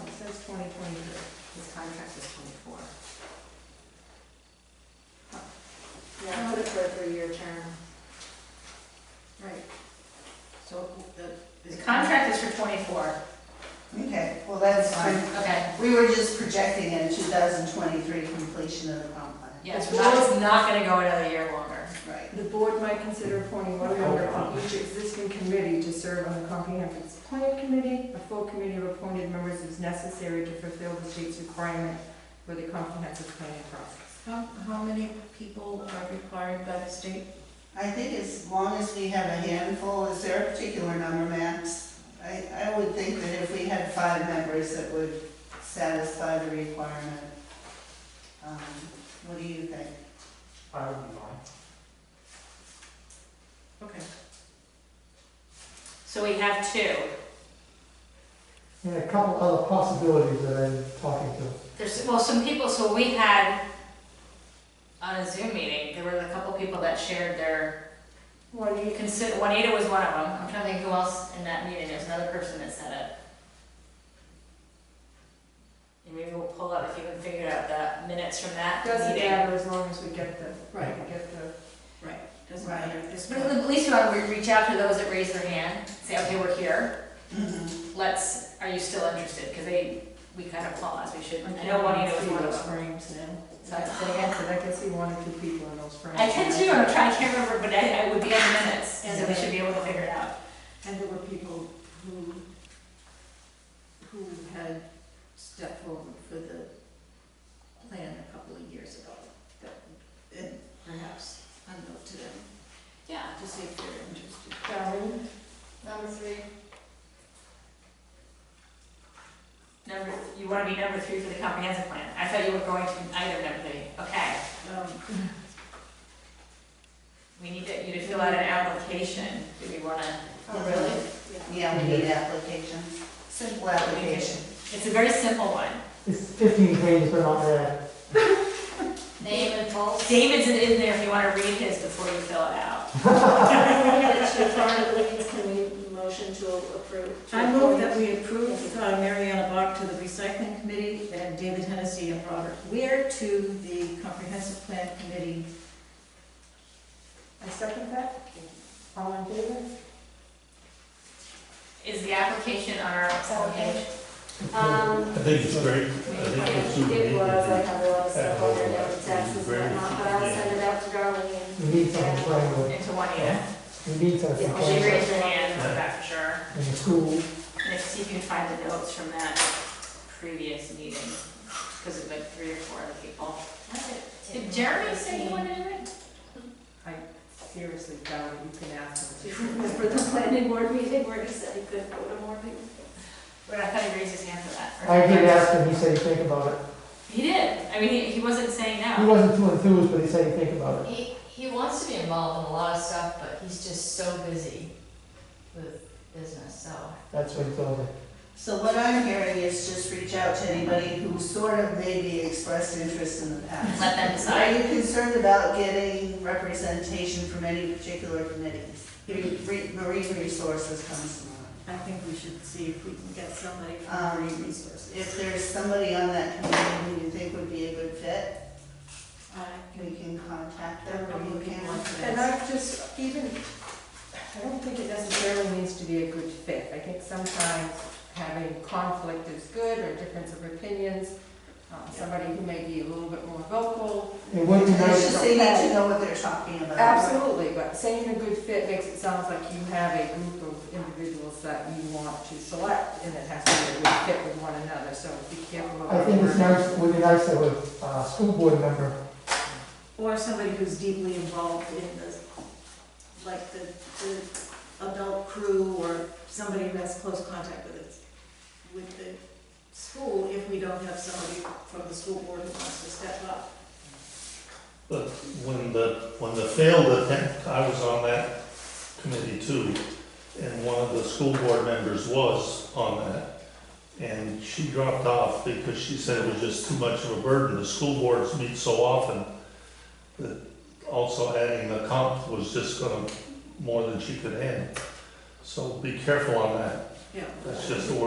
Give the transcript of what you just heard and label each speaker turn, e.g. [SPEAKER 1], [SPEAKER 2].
[SPEAKER 1] twenty twenty-three, his contract is twenty-four.
[SPEAKER 2] Yeah, put it for a three-year term.
[SPEAKER 1] Right. So the.
[SPEAKER 3] The contract is for twenty-four,
[SPEAKER 4] Okay, well, that's fine.
[SPEAKER 3] okay,
[SPEAKER 4] We were just projecting in 2023 completion of the comp plan.
[SPEAKER 3] yes, that is not gonna go another year longer.
[SPEAKER 4] Right.
[SPEAKER 2] The board might consider appointing one member from each existing committee to serve on the comprehensive plan committee. A full committee of appointed members is necessary to fulfill the state's requirement for the comprehensive planning process.
[SPEAKER 1] How, how many people are required by the state?
[SPEAKER 4] I think as long as we have a handful, is there a particular number, Max? I, I would think that if we had five members, that would satisfy the requirement. Um, What do you think?
[SPEAKER 5] I would be fine.
[SPEAKER 1] Okay.
[SPEAKER 3] So we have two,
[SPEAKER 5] And a couple other possibilities that I'm talking to.
[SPEAKER 3] there's, well, some people, so we had on a Zoom meeting, there were a couple people that shared their,
[SPEAKER 2] One each.
[SPEAKER 3] consider, Juanita was one of them, I'm trying to think who else in that meeting, there's another person that said it. And maybe we'll pull up if you can figure out the minutes from that
[SPEAKER 2] Doesn't
[SPEAKER 3] meeting.
[SPEAKER 2] matter as long as we get the,
[SPEAKER 1] Right,
[SPEAKER 2] we get the,
[SPEAKER 1] right, doesn't matter, this
[SPEAKER 3] But at least you want to reach out to those that raise their hand, say, okay, we're here, let's, are you still interested? Because they, we kind of paused, we should, I know Juanita was
[SPEAKER 2] See
[SPEAKER 3] one of
[SPEAKER 2] those
[SPEAKER 3] them.
[SPEAKER 2] frames now.
[SPEAKER 3] So I said again,
[SPEAKER 2] But I can see one or two people in those frames.
[SPEAKER 3] I can too, I'm trying, I can't remember, but I, I would be on the minutes, so we should be able to figure it out.
[SPEAKER 1] And there were people who, who had stepped forward for the plan a couple of years ago, that, and perhaps unknown to them,
[SPEAKER 3] Yeah.
[SPEAKER 1] to see if they're interested.
[SPEAKER 2] Darlene,
[SPEAKER 3] Number three. Number, you want to be number three for the comprehensive plan. I thought you were going to item number three, okay.
[SPEAKER 1] Um,
[SPEAKER 3] We need to, you to fill out an application, do we want to?
[SPEAKER 4] Oh, really? Yeah, we need applications, simple application.
[SPEAKER 3] It's a very simple one.
[SPEAKER 5] It's fifteen pages, but not bad.
[SPEAKER 3] Name and false. David's in there if you want to read his before you fill it out.
[SPEAKER 6] It's your part of Lincoln's commu- motion to approve. to
[SPEAKER 7] I move
[SPEAKER 6] appoint-
[SPEAKER 7] that we approve uh, Mariana Bach to the recycling committee and David Hennessy and Robert Weir to the comprehensive plan committee.
[SPEAKER 2] I second that. All in favor?
[SPEAKER 3] Is the application on our homepage?
[SPEAKER 6] Um,
[SPEAKER 8] I think it's great. I think it's super.
[SPEAKER 6] it was, I have a lot of stuff on there, notes, taxes, and whatnot, but I'll send it out to Darlene and
[SPEAKER 5] We need something framework,
[SPEAKER 3] Into Juanita.
[SPEAKER 5] we need something
[SPEAKER 6] Yeah,
[SPEAKER 3] She
[SPEAKER 6] she
[SPEAKER 5] framework
[SPEAKER 3] raised her hand, for that for sure.
[SPEAKER 5] in the school.
[SPEAKER 3] And if, see if you can find the notes from that previous meeting, because it was like three or four other people. Did Jeremy say he wanted to do it?
[SPEAKER 2] Seriously, Darlene, you can ask them.
[SPEAKER 6] for the planning board meeting where he said he could go to more people.
[SPEAKER 3] But I thought he raised his hand for that.
[SPEAKER 5] I did ask him, he said he'd think about it.
[SPEAKER 3] He did, I mean, he, he wasn't saying
[SPEAKER 5] He
[SPEAKER 3] no.
[SPEAKER 5] wasn't too enthused, but he said he'd think about it.
[SPEAKER 9] He, he wants to be involved in a lot of stuff, but he's just so busy with business, so.
[SPEAKER 5] That's what he told me.
[SPEAKER 4] So what I'm hearing is just reach out to anybody who sort of maybe expressed interest in the past.
[SPEAKER 3] Let them
[SPEAKER 4] Are
[SPEAKER 3] decide.
[SPEAKER 4] you concerned about getting representation from any particular committees? Re- re- Marine Resources comes to mind.
[SPEAKER 7] I think we should see if we can get somebody
[SPEAKER 4] Um,
[SPEAKER 7] from Marine Resources.
[SPEAKER 4] If there's somebody on that committee who you think would be a good fit,
[SPEAKER 1] I-
[SPEAKER 4] we can contact
[SPEAKER 1] There
[SPEAKER 4] them
[SPEAKER 1] were a
[SPEAKER 4] or
[SPEAKER 1] couple
[SPEAKER 4] you
[SPEAKER 1] of people
[SPEAKER 4] can.
[SPEAKER 1] on
[SPEAKER 2] And
[SPEAKER 1] today.
[SPEAKER 2] I just, even, I don't think it necessarily needs to be a good fit. I think sometimes having conflict is good or difference of opinions, um, somebody who may be a little bit more vocal.
[SPEAKER 5] It would be
[SPEAKER 4] It's
[SPEAKER 5] nice,
[SPEAKER 4] just they need to know what they're talking
[SPEAKER 6] Uh,
[SPEAKER 4] about.
[SPEAKER 2] Absolutely, but saying a good fit makes it sound like you have a group of individuals that you want to select and it has to be a good fit with one another, so be careful about.
[SPEAKER 5] I think it's
[SPEAKER 2] wording.
[SPEAKER 5] nice, it would be nice to have a uh, school board member
[SPEAKER 7] Or somebody who's deeply involved in the, like the, the adult crew or somebody who has close contact with it, with the school, if we don't have somebody from the school board who wants to step up.
[SPEAKER 8] But when the, when the failed attempt, I was on that committee too, and one of the school board members was on that. And she dropped off because she said it was just too much of a burden. The school boards meet so often that also adding the comp was just gonna, more than she could handle. So be careful on that.
[SPEAKER 7] Yeah.
[SPEAKER 8] That's just the word